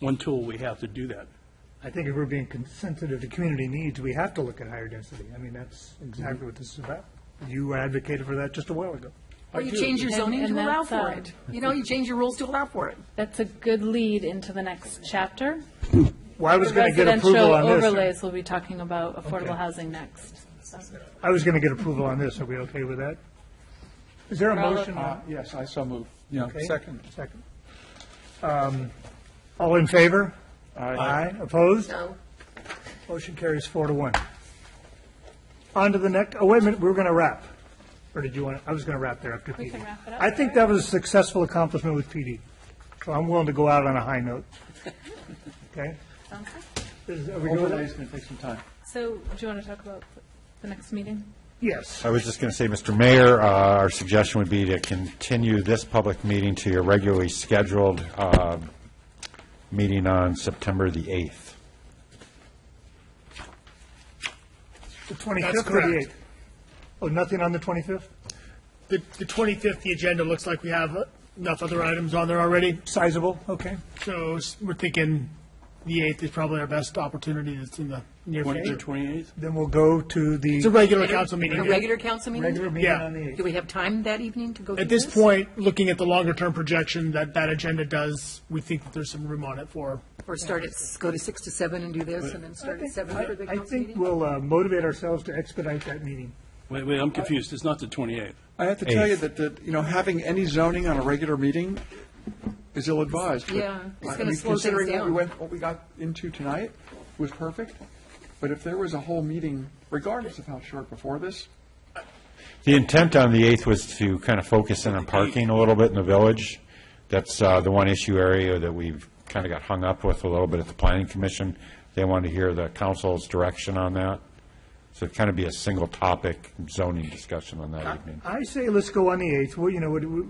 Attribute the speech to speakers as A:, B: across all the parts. A: one tool we have to do that.
B: I think if we're being con- sensitive to community needs, we have to look at higher density. I mean, that's exactly what this is about. You advocated for that just a while ago.
C: Or you change your
D: And-
C: zoning to
D: and
C: allow
D: that's,
C: for
D: uh,
C: it. You know, you change your rules to allow for it.
D: That's a good lead into the next chapter.
B: Well, I was going to get approval on
D: Residential
B: this.
D: overlays, we'll be talking about affordable
B: Okay.
D: housing next.
B: I was going to get approval on this. Are we okay with that? Is there a
D: We're all
B: motion?
D: okay.
B: on-
A: Uh, Yes, I so move. Yeah,
B: okay?
A: second.
B: Second. Um, All in favor? Aye. Opposed?
C: No.
B: Motion carries four to one. On to the next, oh, wait a minute, we were going to wrap. Or did you want, I was going to wrap there after PD.
D: can wrap it up.
B: I think that was a successful accomplishment with PD. So I'm willing to go out on a high note. Okay? Is- Are we good with that?
A: Overlay's going to take some time.
D: So do you want to talk about the next meeting?
B: Yes.
E: I was just going to say, Mr. Mayor, uh, our suggestion would be to continue this public meeting to your regularly scheduled uh, meeting on September the 8th.
B: The 25th or the 8th? Oh, nothing on the 25th?
F: The, the 25th, the agenda looks like we have enough other items on there already,
B: Sizable, okay.
F: so s- we're thinking the 8th is probably our best opportunity that's in the near
A: Twenty-
F: future.
A: The 28th?
B: Then we'll go to
F: It's a
B: the
F: regular council
C: A
F: meeting.
C: regular council
B: regular
C: meeting?
B: meeting
F: yeah.
B: on the 8th.
C: Do we have time that evening to go through
F: At this
C: this?
F: point, looking at the longer-term projection that that agenda does, we think that there's some room on it for
C: Or start at, s- go to six to seven and do this, and then start at seven for the
B: I
C: council
B: think
C: meeting?
B: we'll uh, motivate ourselves to expedite that meeting.
A: Wait, wait, I'm confused. It's not the 28th.
G: I have to tell you
E: Eighth.
G: that, that, you know, having any zoning on a regular meeting is ill-advised. but,
C: Yeah, it's
G: I
C: gonna
G: mean,
C: slow things
G: Considering what we
C: down.
G: went, what we got into tonight was perfect, but if there was a whole meeting, regardless of how short before this,
E: The intent on the 8th was to kind of focus in on parking a little bit in the village. That's uh, the one issue area that we've kind of got hung up with a little bit at the Planning Commission. They wanted to hear the council's direction on that. So it'd kind of be a single topic zoning discussion on that evening.
B: I say let's go on the 8th. Well, you know, it- it-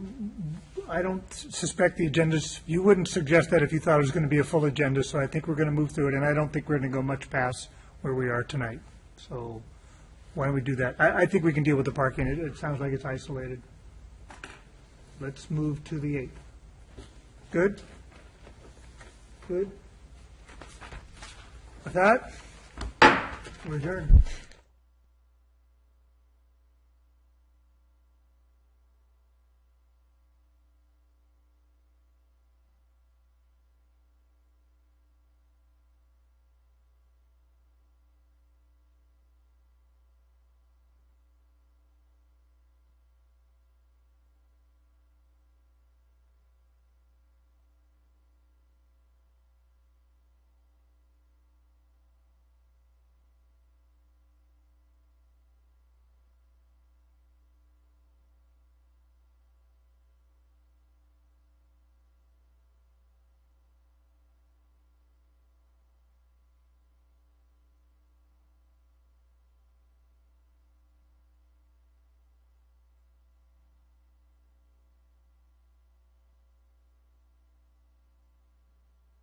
B: I don't suspect the agendas, you wouldn't suggest that if you thought it was going to be a full agenda, so I think we're going to move through it, and I don't think we're going to go much past where we are tonight. So why don't we do that? I, I think we can deal with the parking. It, it sounds like it's isolated. Let's move to the 8th. Good? Good? With that, we're adjourned.